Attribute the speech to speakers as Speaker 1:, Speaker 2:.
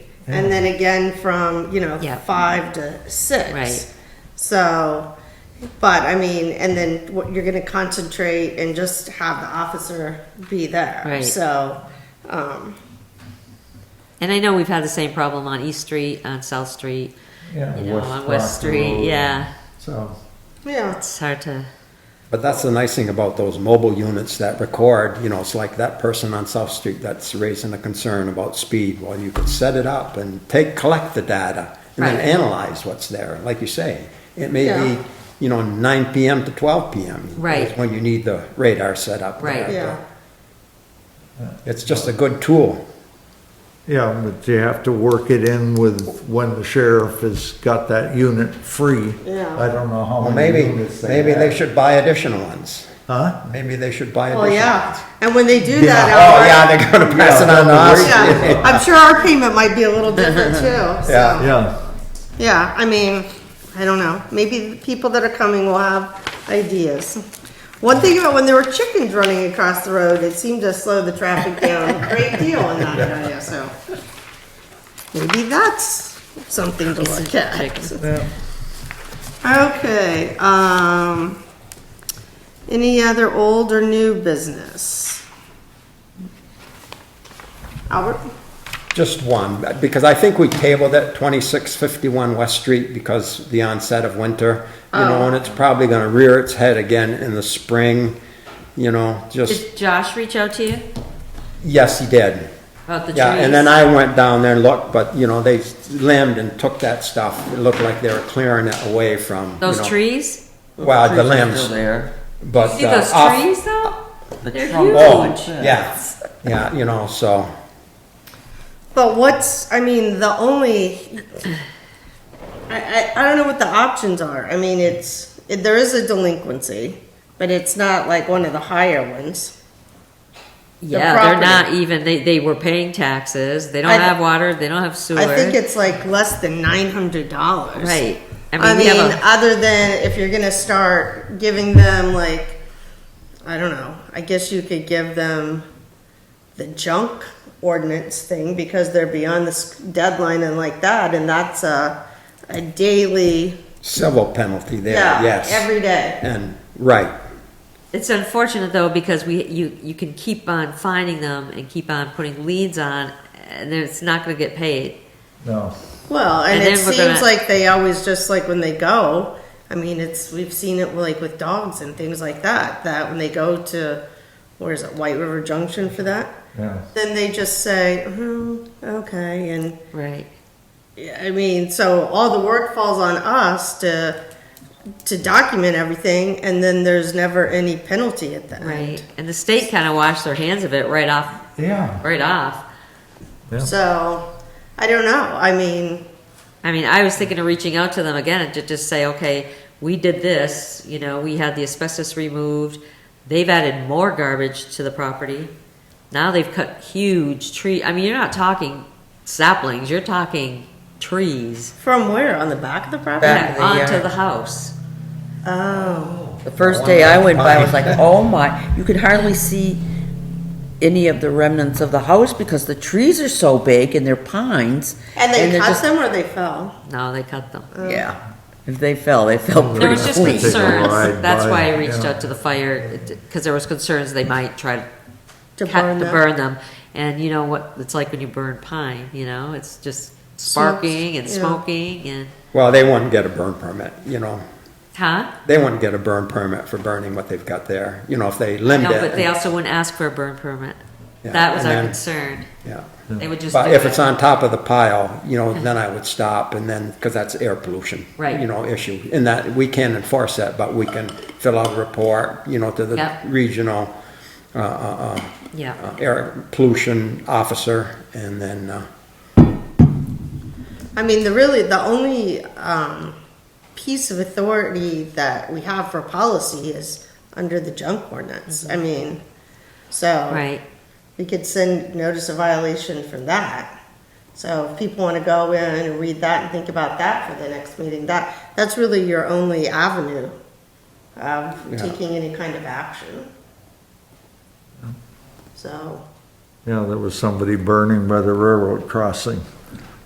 Speaker 1: and then again from, you know,
Speaker 2: Yeah.
Speaker 1: five to six.
Speaker 2: Right.
Speaker 1: So, but I mean, and then what you're gonna concentrate and just have the officer be there.
Speaker 2: Right.
Speaker 1: So, um,
Speaker 2: And I know we've had the same problem on East Street, on South Street,
Speaker 3: Yeah,
Speaker 2: you know,
Speaker 3: West
Speaker 2: on West
Speaker 3: Proctor Road.
Speaker 2: Street, yeah.
Speaker 3: So,
Speaker 1: yeah,
Speaker 2: It's hard to,
Speaker 4: But that's the nice thing about those mobile units that record, you know, it's like that person on South Street that's raising a concern about speed. Well, you could set it up and take, collect the data and then
Speaker 2: Right.
Speaker 4: analyze what's there. Like you say, it may
Speaker 1: Yeah.
Speaker 4: be, you know, nine PM to twelve PM. is
Speaker 2: Right.
Speaker 4: When you need the radar set up.
Speaker 2: Right.
Speaker 1: yeah.
Speaker 4: It's just a good tool.
Speaker 3: yeah, but you have to work it in with when the sheriff has got that unit free.
Speaker 1: Yeah.
Speaker 3: I don't know how
Speaker 4: Well,
Speaker 3: many
Speaker 4: maybe,
Speaker 3: units they
Speaker 4: maybe they
Speaker 3: have.
Speaker 4: should buy additional ones.
Speaker 3: Huh?
Speaker 4: Maybe they should buy
Speaker 1: Well,
Speaker 4: additional
Speaker 1: yeah,
Speaker 4: ones.
Speaker 1: and when they do
Speaker 4: Yeah.
Speaker 1: that,
Speaker 4: Oh,
Speaker 1: Albert-
Speaker 4: yeah, they're gonna pass it on to us.
Speaker 1: Yeah, I'm sure our payment might be a little different too. So,
Speaker 4: Yeah.
Speaker 3: Yeah,
Speaker 1: yeah, I mean, I don't know. Maybe the people that are coming will have ideas. One thing about when there were chickens running across the road, it seemed to slow the traffic down a great deal in that area, so. Maybe that's something to look at.
Speaker 3: yeah.
Speaker 1: Okay, um, any other old or new business? Albert?
Speaker 4: Just one, because I think we tabled it, 2651 West Street, because the onset of winter, you
Speaker 2: Oh.
Speaker 4: know, and it's probably gonna rear its head again in the spring, you know, just,
Speaker 2: did Josh reach out to you
Speaker 4: yes, he did.
Speaker 2: about the trees?
Speaker 4: Yeah, and then I went down there and looked, but, you know, they limbed and took that stuff. It looked like they were clearing it away from, you
Speaker 2: Those
Speaker 4: know,
Speaker 2: trees?
Speaker 4: Well, the
Speaker 5: Trees are still
Speaker 4: limbs,
Speaker 5: there.
Speaker 4: but.
Speaker 2: See
Speaker 4: uh,
Speaker 2: those
Speaker 4: off-
Speaker 2: trees though?
Speaker 5: The
Speaker 2: They're
Speaker 5: trunk-
Speaker 4: Oh,
Speaker 2: huge.
Speaker 4: yeah, yeah, you know, so,
Speaker 1: But what's, I mean, the only, I, I, I don't know what the options are. I mean, it's, it, there is a delinquency, but it's not like one of the higher ones.
Speaker 2: Yeah, they're not
Speaker 1: property.
Speaker 2: even, they, they were paying taxes, they don't
Speaker 1: I th-
Speaker 2: have water, they don't have sewer.
Speaker 1: I think it's like less than nine hundred dollars.
Speaker 2: Right. I mean,
Speaker 1: I
Speaker 2: we
Speaker 1: mean,
Speaker 2: have a-
Speaker 1: other than if you're gonna start giving them like, I don't know. I guess you could give them the junk ordinance thing because they're beyond this deadline and like that, and that's a a daily.
Speaker 4: civil penalty there,
Speaker 1: Yeah,
Speaker 4: yes.
Speaker 1: every day.
Speaker 4: And, right,
Speaker 2: It's unfortunate though because we you you can keep on finding them and keep on putting leads on, and then it's not going to get paid.
Speaker 3: No,
Speaker 1: Well, and,
Speaker 2: And
Speaker 1: it
Speaker 2: then we're
Speaker 1: seems
Speaker 2: gonna-
Speaker 1: like they always just like when they go. I mean, it's we've seen it like with dogs and things like that. That when they go to, where is it, White River Junction for that?
Speaker 3: yeah.
Speaker 1: Then they just say, hmm, okay, and
Speaker 2: Right.
Speaker 1: yeah, I mean, so all the work falls on us to to document everything, and then there's never any penalty at the
Speaker 2: Right. And the state kind of washed their hands of it right off.
Speaker 3: Yeah.
Speaker 2: Right off.
Speaker 3: Yeah.
Speaker 1: end. So I don't know. I mean,
Speaker 2: I mean, I was thinking of reaching out to them again and to just say, okay, we did this. You know, we had the asbestos removed. They've added more garbage to the property. Now they've cut huge tree. I mean, you're not talking saplings. You're talking trees
Speaker 1: from where on the back of the property?
Speaker 5: Back of the
Speaker 2: onto
Speaker 5: yard.
Speaker 2: the house.
Speaker 1: Oh,
Speaker 5: The first day I went by, I was like, oh my, you could hardly see any of the remnants of the house because the trees are so big and they're pines.
Speaker 1: and they
Speaker 5: they're
Speaker 1: cut
Speaker 5: just-
Speaker 1: them or they fell.
Speaker 2: No, they cut them.
Speaker 5: Yeah, if they fell, they
Speaker 4: Mm.
Speaker 5: fell pretty
Speaker 2: There was just
Speaker 3: Take a
Speaker 5: clean.
Speaker 2: concerns,
Speaker 3: ride
Speaker 2: that's
Speaker 3: by,
Speaker 2: why I reached
Speaker 3: yeah.
Speaker 2: out to the fire, because there was concerns they might try to
Speaker 1: To
Speaker 2: cut,
Speaker 1: burn
Speaker 2: to
Speaker 1: them.
Speaker 2: burn them. And you know what, it's like when you burn pine, you know, it's just sparking and
Speaker 1: yeah.
Speaker 2: smoking and,
Speaker 4: well, they wouldn't get a burn permit, you know.
Speaker 2: huh?
Speaker 4: they wouldn't get a burn permit for burning what they've got there, you know, if they
Speaker 2: No,
Speaker 4: limit it.
Speaker 2: but they also wouldn't ask for a burn permit.
Speaker 4: Yeah,
Speaker 2: That was
Speaker 4: and
Speaker 2: our
Speaker 4: then-
Speaker 2: concern.
Speaker 4: Yeah.
Speaker 2: They would just do
Speaker 4: But if it's
Speaker 2: it.
Speaker 4: on top of the pile, you know, then I would stop and then, because that's air pollution.
Speaker 2: Right.
Speaker 4: You know, issue, and that, we can't enforce that, but we can fill out a report, you know, to the
Speaker 2: Yep.
Speaker 4: regional, uh, uh, uh,
Speaker 2: Yeah,
Speaker 4: uh, air pollution officer and then, uh,
Speaker 1: I mean, the really the only um, piece of authority that we have for policy is under the junk ordinance. I mean, so
Speaker 4: Uh,
Speaker 2: right.
Speaker 1: we could send notice of violation from that. So if people want to go in and read that and think about that for the next meeting, that that's really your only avenue of
Speaker 4: Yeah.
Speaker 1: taking any kind of action. So
Speaker 3: Yeah, there was somebody burning by the railroad crossing.